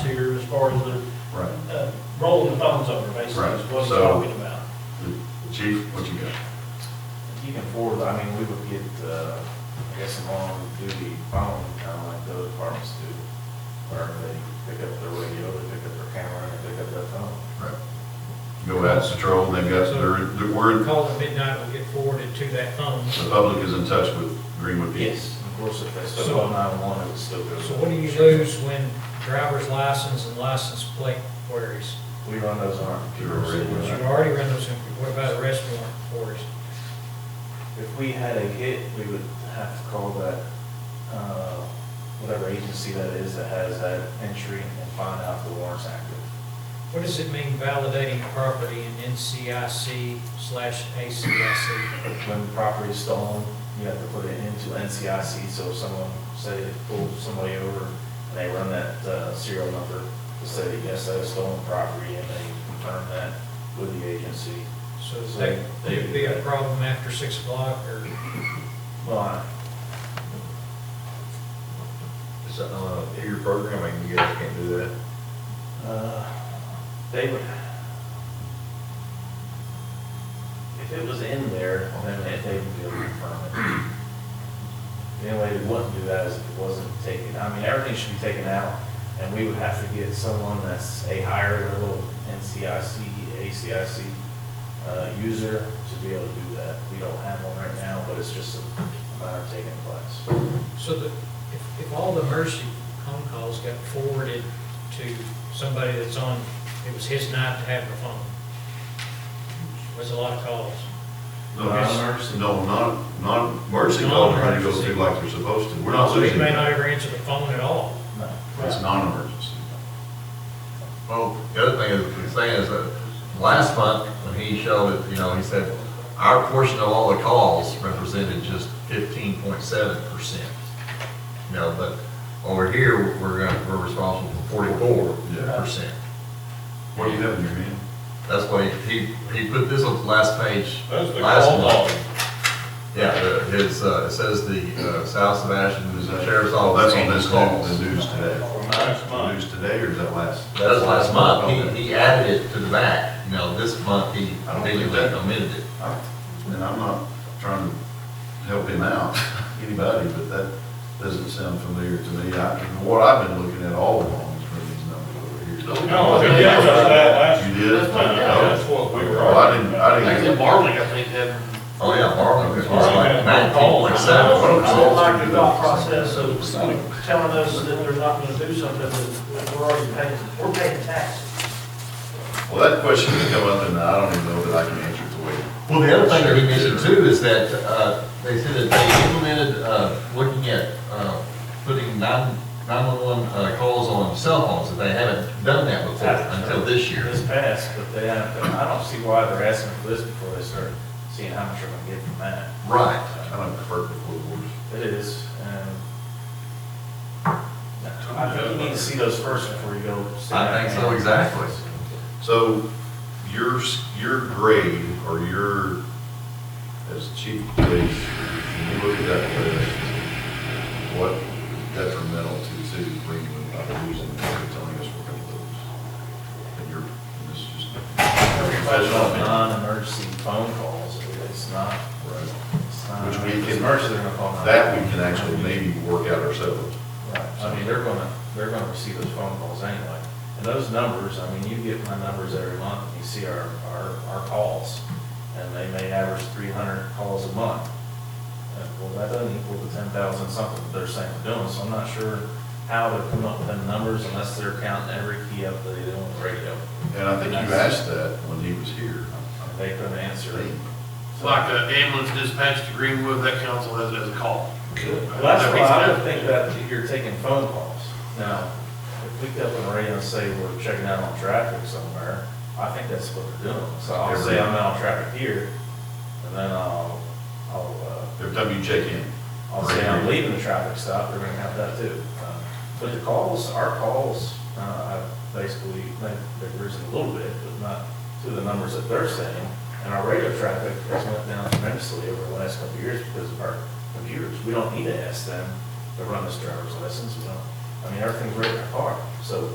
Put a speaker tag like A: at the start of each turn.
A: far as the,
B: Right.
A: uh, rolling the phones over, basically, is
B: Right,
A: what he's
B: so-
A: talking about.
B: Chief, what you got?
C: You can forward, I mean, we would get, uh, I guess, an on-duty phone, kind of like the other departments do, where they pick up their radio, they pick up their camera, and they pick up their phone.
B: Right. Go out and patrol, they've got, they're, the word,
D: Call at midnight will get forwarded to that phone.
B: the public is in touch with Greenwood people.
C: Of course, if they still call nine-one-one, it would still go.
D: So what do you lose when driver's license and license plate queries?
C: We run those on our computer. so
D: You
C: we're not-
D: already run those, in- what about arrest warrant queries?
C: If we had a hit, we would have to call that, uh, whatever agency that is that has that entry and find out if the warrant's active.
D: What does it mean validating property in NCIC slash ACIC?
C: When property is stolen, you have to put it into NCIC, so if someone, say, they pull somebody over, and they run that uh, serial number, to say, yes, that is stolen property, and they confirm that with the agency.
D: So that, there'd be a problem after six o'clock or
C: Well, I-
E: Is that uh, not a peer program, I mean, you guys can't do that?
C: Uh, They would. If it was in there, then they- they would be able to confirm it. The only way they wouldn't do that is if it wasn't taken, I mean, everything should be taken out, and we would have to get someone that's a higher level NCIC, ACIC uh, user to be able to do that. We don't have one right now, but it's just a matter of taking a class.
D: So that, if, if all the emergency phone calls got forwarded to somebody that's on, it was his night to have the phone. Was a lot of calls.
B: No,
C: Not
B: it's-
C: emergency.
B: No, not, not emergency calls, we're to go through like they're supposed to. We're not
D: So he
B: losing.
D: may not ever answer the phone at all.
C: No.
B: It's non-emergency.
E: Well, the other thing is, he's saying is that last month, when he showed it, you know, he said, our portion of all the calls represented just fifteen point seven percent. You know, but over here, we're gonna, we're responsible for forty-four percent.
B: What do you have in your hand?
E: That's why he, he put this on the last page.
F: That's the
E: last
F: call
E: month.
F: volume.
E: Yeah, uh, his, uh, it says the, uh, South Sebastian Sheriff's
B: Oh,
E: Office.
B: that's on this,
E: calls.
B: new- the news today.
F: From last
B: The
F: month.
B: news today, or is that last?
E: That was last month, he, he added it to the back, you know, this month he
B: I don't think
E: continually
B: that-
E: omitted it.
B: I- And I'm not trying to help him out, anybody, but that doesn't sound familiar to me. I, what I've been looking at all along is for these numbers over here.
F: No, we did just that last.
B: You did?
F: Uh, That's what we were.
B: Well, I didn't, I didn't.
G: Actually, Marley, I think, had.
E: Oh, yeah, Marvin, it was like
F: Marvin had no
E: nineteen
F: calls.
E: point
A: I
E: seven.
B: Oh,
A: don't- I don't like the thought process of telling us that they're not gonna do something, that we're already paying, we're paying taxes.
B: Well, that question that come up, and I don't even know that I can answer it the way.
E: Well, the other thing that he mentioned too is that, uh, they said that they implemented, uh, looking at, uh, putting nine, nine-one-one, uh, calls on cell phones, that they haven't done that before until this year.
C: This passed, but they haven't, I don't see why they're asking for this before they start seeing how much they're gonna get from that. Uh,
E: Right.
B: Kind of perfect little words.
C: It is, and I think you need to see those first before you go. sit down
E: I think so,
C: and-
E: exactly.
B: So your, s- your grade or your, as chief of police, when you look at that list, what is detrimental to the city of Greenwood by losing, or telling us we're gonna lose? And you're, and this is just.
C: That's all non-emergency phone calls, it's not, it's not.
B: Which we
C: if it's
B: can-
C: Emergency, they're gonna call nine.
B: That we can actually maybe work out ourselves.
C: Right, I mean, they're gonna, they're gonna receive those phone calls anyway. And those numbers, I mean, you get my numbers every month, and you see our, our, our calls, and they may average three hundred calls a month. Uh, Well, that doesn't equal the ten thousand something that they're saying they're doing, so I'm not sure how they're coming up with them numbers unless they're counting every key up that they do on the radio.
B: And I think you asked that when he was here.
C: And They couldn't answer it.
G: It's like an ambulance dispatch to Greenwood, that council has it as a call. Uh,
C: Well, that's why I would think that you're taking phone calls. Now, if we get up on the radio and say we're checking out on traffic somewhere, I think that's what they're doing. So I'll say I'm out on traffic here, and then I'll, I'll,
B: Every time you check in.
C: uh, I'll say I'm leaving the traffic stop, they're gonna have that too. Uh, But the calls, our calls, uh, I basically, think they've risen a little bit, but not to the numbers that they're saying. And our radio traffic has went down tremendously over the last couple of years because of our computers. We don't need to ask them to run this driver's license, we don't, I mean, everything's right in our car. So